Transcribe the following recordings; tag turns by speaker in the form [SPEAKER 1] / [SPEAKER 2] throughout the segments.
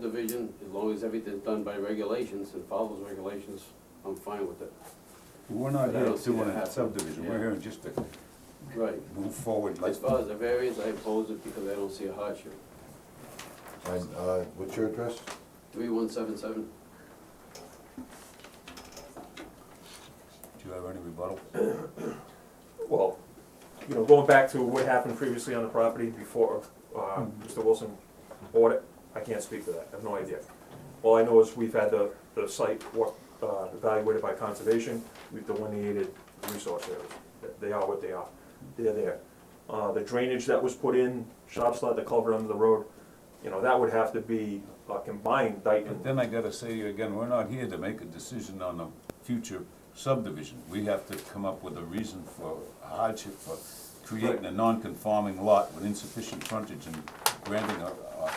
[SPEAKER 1] subdivision, as long as everything's done by regulations and follows regulations, I'm fine with it.
[SPEAKER 2] We're not
[SPEAKER 1] But I
[SPEAKER 2] here
[SPEAKER 1] don't see
[SPEAKER 2] doing
[SPEAKER 1] that
[SPEAKER 2] a
[SPEAKER 1] happening.
[SPEAKER 2] subdivision, we're
[SPEAKER 1] Yeah.
[SPEAKER 2] here just to
[SPEAKER 1] Right.
[SPEAKER 2] move forward like.
[SPEAKER 1] As far as the variance, I oppose it because I don't see a hardship.
[SPEAKER 3] And, uh, what's your address?
[SPEAKER 1] Three one seven seven,
[SPEAKER 2] Do you have any rebuttal?
[SPEAKER 4] Well, you know, going back to what happened previously on the property before, uh, Mr. Wilson bought it, I can't speak to that, I have no idea. All I know is we've had the, the site wa- uh, evaluated by conservation, we've delineated resource areas, That they are what they are, they're there. Uh, the drainage that was put in, shop slot, the culvert under the road, you know, that would have to be uh, combined
[SPEAKER 2] But
[SPEAKER 4] Dayton.
[SPEAKER 2] then I gotta say to you again, we're not here to make a decision on a future subdivision. We have to come up with a reason for hardship for creating a non-conforming lot with insufficient frontage and granting a, a,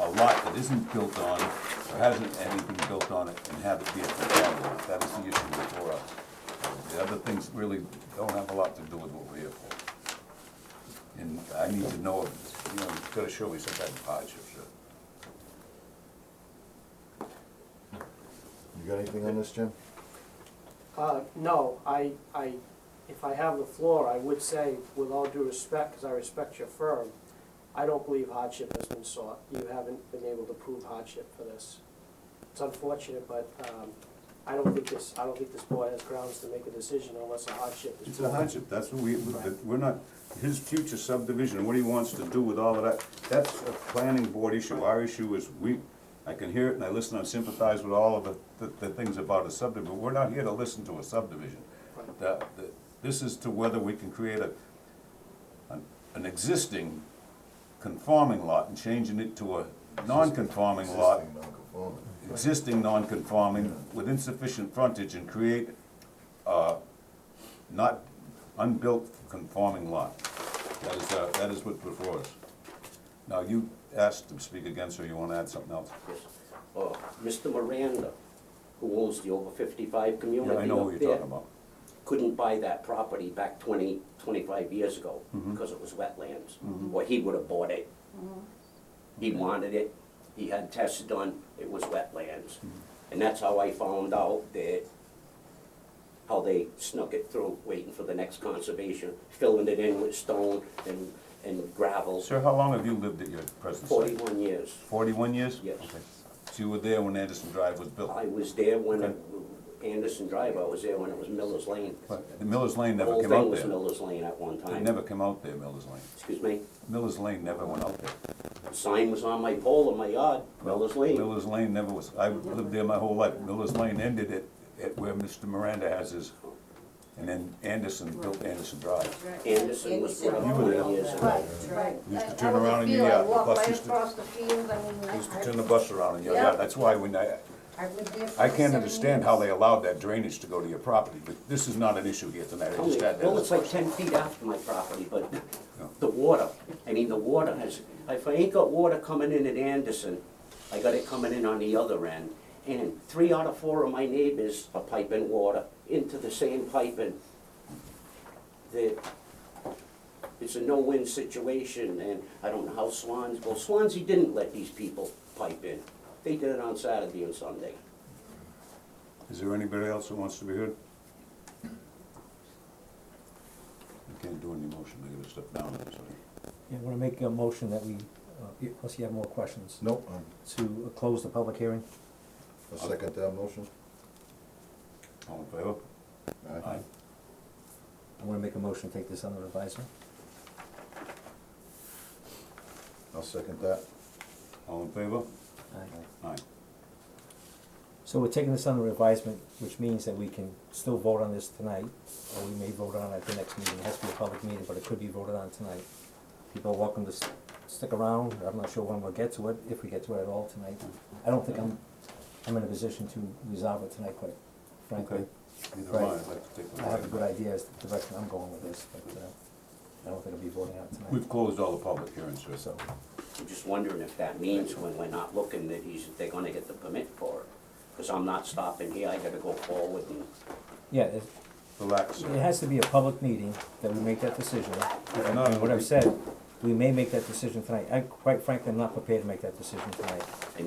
[SPEAKER 2] a lot that isn't built on, or hasn't anything built on it, and have it be a conforming lot. That is the issue before us. The other things really don't have a lot to do with what we're here for. And I need to know, you know, you've gotta show me some type of hardship, sure.
[SPEAKER 3] You got anything on this, Jim?
[SPEAKER 5] Uh, no, I, I, if I have the floor, I would say, with all due respect, because I respect your firm, I don't believe hardship has been sought. You haven't been able to prove hardship for this. It's unfortunate, but, um, I don't think this, I don't think this board has grounds to make a decision unless a hardship is
[SPEAKER 2] It's a
[SPEAKER 5] proven.
[SPEAKER 2] hardship, that's what we, that- we're not, his future subdivision, what he wants to do with all of that, that's a planning board issue. Our issue is, we, I can hear it and I listen, I sympathize with all of the, the, the things about a subdivision, but we're not here to listen to a subdivision.
[SPEAKER 5] Right.
[SPEAKER 2] That, that, this is to whether we can create a, an, an existing conforming lot and changing it to a non-conforming lot,
[SPEAKER 3] Existing non-conforming.
[SPEAKER 2] existing non-conforming with insufficient frontage and create a not unbuilt conforming lot. That is, uh, that is what's before us. Now, you asked to speak again, so you want to add something else?
[SPEAKER 6] Yes. Uh, Mr. Miranda, who owns the over fifty-five community
[SPEAKER 2] Yeah, I know who
[SPEAKER 6] up
[SPEAKER 2] you're
[SPEAKER 6] there,
[SPEAKER 2] talking about.
[SPEAKER 6] Couldn't buy that property back 20, 25 years ago
[SPEAKER 2] Mm-hmm.
[SPEAKER 6] because it was wetlands, or he would have bought it. He wanted it, he had tests done, it was wetlands.
[SPEAKER 2] Mm-hmm.
[SPEAKER 6] And that's how I found out that, how they snuck it through, waiting for the next conservation, filling it in with stone and, and gravel,
[SPEAKER 2] Sir, how long have you lived at your present site?
[SPEAKER 6] forty-one years.
[SPEAKER 2] Forty-one years?
[SPEAKER 6] Yes.
[SPEAKER 2] Okay. So you were there when Anderson Drive was built?
[SPEAKER 6] I was there when it- Anderson Drive, I was there when it was Miller's Lane.
[SPEAKER 2] But Miller's Lane
[SPEAKER 6] The
[SPEAKER 2] never
[SPEAKER 6] whole
[SPEAKER 2] came out
[SPEAKER 6] thing was
[SPEAKER 2] there.
[SPEAKER 6] Miller's Lane at one
[SPEAKER 2] It
[SPEAKER 6] time.
[SPEAKER 2] never came out there, Miller's Lane.
[SPEAKER 6] Excuse me,
[SPEAKER 2] Miller's Lane never went out there.
[SPEAKER 6] sign was on my pole in my yard, Miller's Lane.
[SPEAKER 2] Miller's Lane never was, I lived there my whole life, Miller's Lane ended at, at where Mr. Miranda has his, and then Anderson built Anderson Drive.
[SPEAKER 6] Anderson was put up
[SPEAKER 2] You were there.
[SPEAKER 6] twenty years ago.
[SPEAKER 7] Right, right.
[SPEAKER 2] You used to
[SPEAKER 7] I- I
[SPEAKER 2] turn
[SPEAKER 7] was
[SPEAKER 2] around in your
[SPEAKER 7] field, I
[SPEAKER 2] yard, the
[SPEAKER 7] walked
[SPEAKER 2] bus
[SPEAKER 7] right
[SPEAKER 2] used to-
[SPEAKER 7] across the field, I mean,
[SPEAKER 2] Used to
[SPEAKER 7] I-
[SPEAKER 2] turn the bus around in your
[SPEAKER 7] Yeah.
[SPEAKER 2] yard, that's why when I,
[SPEAKER 7] I was there for
[SPEAKER 2] I can't
[SPEAKER 7] seven
[SPEAKER 2] understand
[SPEAKER 7] years.
[SPEAKER 2] how they allowed that drainage to go to your property, but this is not an issue here tonight, I
[SPEAKER 6] Only-
[SPEAKER 2] just had that.
[SPEAKER 6] Well, it's Oh, like ten feet after my property, but the water, I mean, the water has, if I ain't got water coming in at Anderson, I got it coming in on the other end. And three out of four of my neighbors are piping water into the same piping. That, it's a no-win situation, and I don't know how Swans, well, Swansea didn't let these people pipe in. They did it on Saturday and Sunday.
[SPEAKER 2] Is there anybody else that wants to be heard? I can't do any motion, I gotta step down, I'm sorry.
[SPEAKER 8] Yeah, I want to make a motion that we, uh, unless you have more questions,
[SPEAKER 3] No, um,
[SPEAKER 8] to uh, close the public hearing.
[SPEAKER 3] I'll second that motion.
[SPEAKER 2] All in favor? Aye.
[SPEAKER 8] I want to make a motion to take this under advisement.
[SPEAKER 3] I'll second that.
[SPEAKER 2] All in favor?
[SPEAKER 8] Aye.
[SPEAKER 2] Aye.
[SPEAKER 8] So we're taking this under advisement, which means that we can still vote on this tonight, or we may vote on it at the next meeting. It has to be a public meeting, but it could be voted on tonight. People are welcome to s- stick around. I'm not sure when we'll get to it, if we get to it at all tonight. I don't think I'm, I'm in a position to resolve it tonight, quite frankly.
[SPEAKER 2] Okay. Either
[SPEAKER 8] Right.
[SPEAKER 2] one, I'd like to take the
[SPEAKER 8] I have a
[SPEAKER 2] vote.
[SPEAKER 8] good idea as to the direction I'm going with this, but uh, I don't think I'll be voting on it tonight.
[SPEAKER 2] We've closed all the public hearings, sir.
[SPEAKER 8] So,
[SPEAKER 6] I'm just wondering if that means when we're not looking, that he's, they're gonna get the permit for it. Because I'm not stopping here, I gotta go forward and,
[SPEAKER 8] yeah, it,
[SPEAKER 2] Relax, sir.
[SPEAKER 8] it has to be a public meeting that we make that decision.
[SPEAKER 2] If not,
[SPEAKER 8] And what I've said, we may make that decision tonight. I, quite frankly, I'm not prepared to make that decision tonight.